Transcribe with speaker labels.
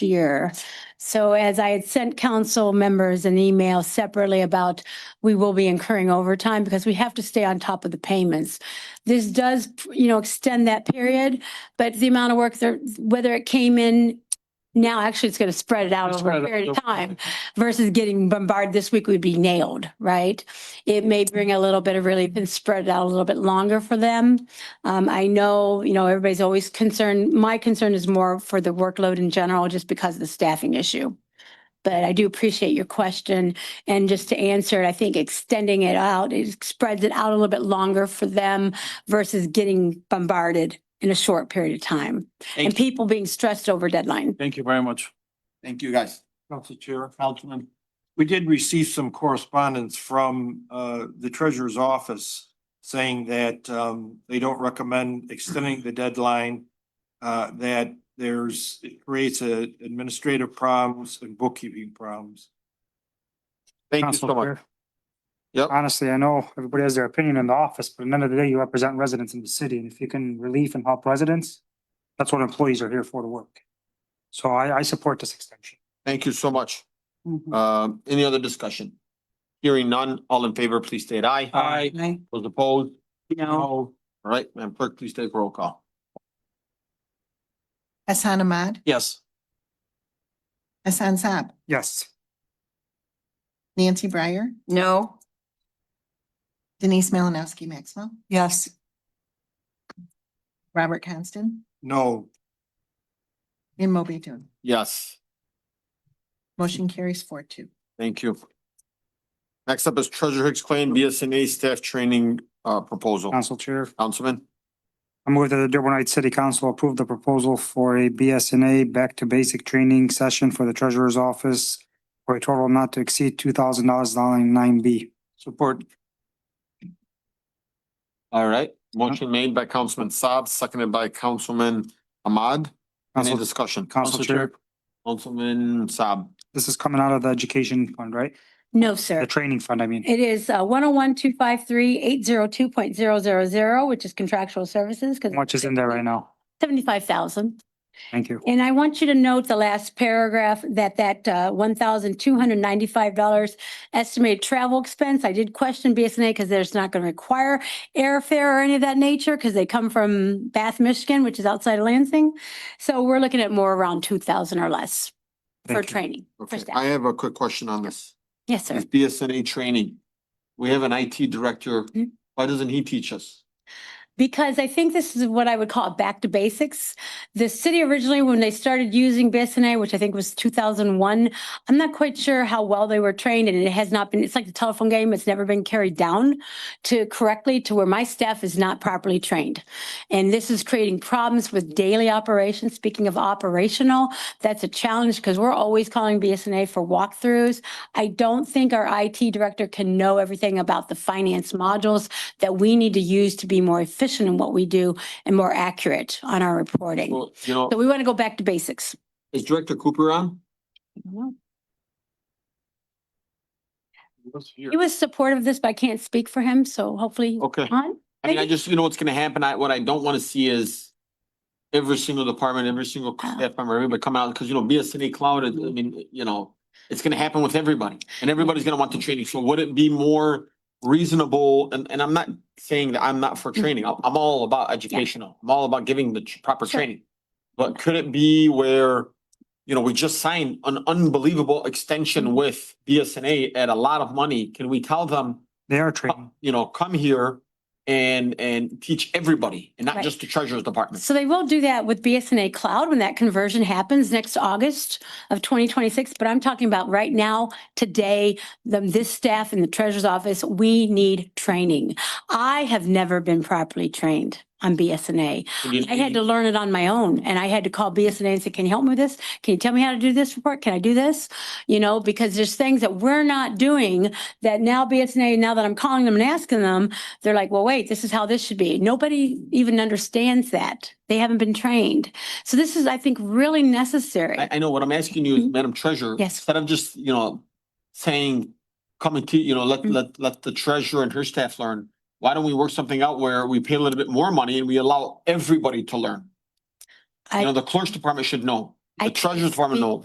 Speaker 1: year. So as I had sent council members an email separately about, we will be incurring overtime because we have to stay on top of the payments. This does, you know, extend that period, but the amount of work there, whether it came in now, actually, it's going to spread it out over a period of time versus getting bombarded this week, we'd be nailed, right? It may bring a little bit of relief and spread it out a little bit longer for them. Um, I know, you know, everybody's always concerned, my concern is more for the workload in general, just because of the staffing issue. But I do appreciate your question and just to answer it, I think extending it out, it spreads it out a little bit longer for them versus getting bombarded in a short period of time and
Speaker 2: Thank you,
Speaker 1: people being stressed over deadline.
Speaker 2: thank you very much,
Speaker 3: Thank you, guys.
Speaker 4: Council Chair, Councilman, we did receive some correspondence from uh the treasurer's office saying that um they don't recommend extending the deadline. Uh, that there's, it creates a administrative problems and bookkeeping problems.
Speaker 3: Thank you
Speaker 5: Council
Speaker 3: so much.
Speaker 5: Chair.
Speaker 3: Yep.
Speaker 5: Honestly, I know everybody has their opinion in the office, but at the end of the day, you represent residents in the city, and if you can relieve and help residents, that's what employees are here for to work. So I, I support this extension.
Speaker 3: Thank you so much. Um, any other discussion? Hearing none, all in favor, please state aye.
Speaker 2: Aye.
Speaker 3: Those opposed?
Speaker 6: No.
Speaker 3: All right, Madam Clerk, please take roll call.
Speaker 6: Hassan Ahmad,
Speaker 2: yes.
Speaker 6: Hassan Saab,
Speaker 5: Yes.
Speaker 6: Nancy Breyer. No. Denise Malinowski Maxwell. Yes. Robert Constant
Speaker 4: No,
Speaker 6: and Moby Dun.
Speaker 3: Yes,
Speaker 6: Motion carries four two.
Speaker 3: thank you. Next up is Treasurer Hicks Claim BSNA Staff Training uh Proposal.
Speaker 5: Council Chair,
Speaker 3: Councilman,
Speaker 5: I move that the Dearborn Heights City Council approve the proposal for a BSNA Back to Basic Training Session for the Treasurer's Office for a total not to exceed two thousand dollars, line nine B.
Speaker 4: support,
Speaker 3: all right, motion made by Councilman Saab, seconded by Councilman Ahmad. Any
Speaker 5: Council,
Speaker 3: discussion?
Speaker 5: Council Chair,
Speaker 3: Councilman Saab,
Speaker 5: this is coming out of the education fund, right?
Speaker 1: No, sir.
Speaker 5: The training fund, I mean.
Speaker 1: It is one oh one, two five three, eight zero two point zero zero zero, which is contractual services.
Speaker 5: How much is in there right now?
Speaker 1: Seventy-five thousand.
Speaker 5: Thank you.
Speaker 1: And I want you to note the last paragraph that that uh one thousand two hundred ninety-five dollars estimated travel expense. I did question BSNA because there's not going to require airfare or any of that nature because they come from Bath, Michigan, which is outside of Lansing. So we're looking at more around two thousand or less for
Speaker 5: Thank you.
Speaker 1: training. for
Speaker 3: okay,
Speaker 1: staff.
Speaker 3: I have a quick question on this.
Speaker 1: Yes, sir.
Speaker 3: This BSNA training, we have an IT director,
Speaker 1: Hmm.
Speaker 3: why doesn't he teach us?
Speaker 1: Because I think this is what I would call back to basics. The city originally, when they started using BSNA, which I think was two thousand one, I'm not quite sure how well they were trained and it has not been, it's like the telephone game, it's never been carried down to correctly to where my staff is not properly trained. And this is creating problems with daily operations. Speaking of operational, that's a challenge because we're always calling BSNA for walkthroughs. I don't think our IT director can know everything about the finance modules that we need to use to be more efficient in what we do and more accurate on our reporting.
Speaker 3: Well, you know,
Speaker 1: So we want to go back to basics.
Speaker 3: is Director Cooper on?
Speaker 1: He was supportive of this, but I can't speak for him, so hopefully
Speaker 3: Okay,
Speaker 1: on.
Speaker 3: I mean, I just, you know what's gonna happen, I, what I don't wanna see is every single department, every single
Speaker 1: Oh.
Speaker 3: staff member, everybody come out, cause you know, BSNA cloud, I mean, you know, it's gonna happen with everybody, and everybody's gonna want the training, so would it be more reasonable, and, and I'm not saying that I'm not for
Speaker 1: Mm.
Speaker 3: training, I'm, I'm all about educational, I'm all about giving the tr- proper
Speaker 1: Sure.
Speaker 3: training. But could it be where, you know, we just signed an unbelievable
Speaker 1: Mm.
Speaker 3: extension with BSNA at a lot of money, can we tell them?
Speaker 5: They are training.
Speaker 3: you know, come here and, and teach everybody and not
Speaker 1: Right.
Speaker 3: just the treasurer's department.
Speaker 1: So they will do that with BSNA Cloud when that conversion happens next August of 2026. But I'm talking about right now, today, the, this staff in the treasurer's office, we need training. I have never been properly trained on BSNA.
Speaker 3: And you-
Speaker 1: I had to learn it on my own and I had to call BSNA and say, can you help me with this? Can you tell me how to do this report? Can I do this? You know, because there's things that we're not doing that now BSNA, now that I'm calling them and asking them, they're like, well, wait, this is how this should be. Nobody even understands that. They haven't been trained. So this is, I think, really necessary.
Speaker 3: I, I know what I'm asking you, is, Madam Treasurer.
Speaker 1: Mm-hmm. Yes.
Speaker 3: Instead of just, you know, saying, come and teach, you know, let,
Speaker 1: Mm.
Speaker 3: let, let the treasurer and her staff learn. Why don't we work something out where we pay a little bit more money and we allow everybody to learn? You know,
Speaker 1: I,
Speaker 3: the clerk's department should know,
Speaker 1: I
Speaker 3: The treasurer's department, no.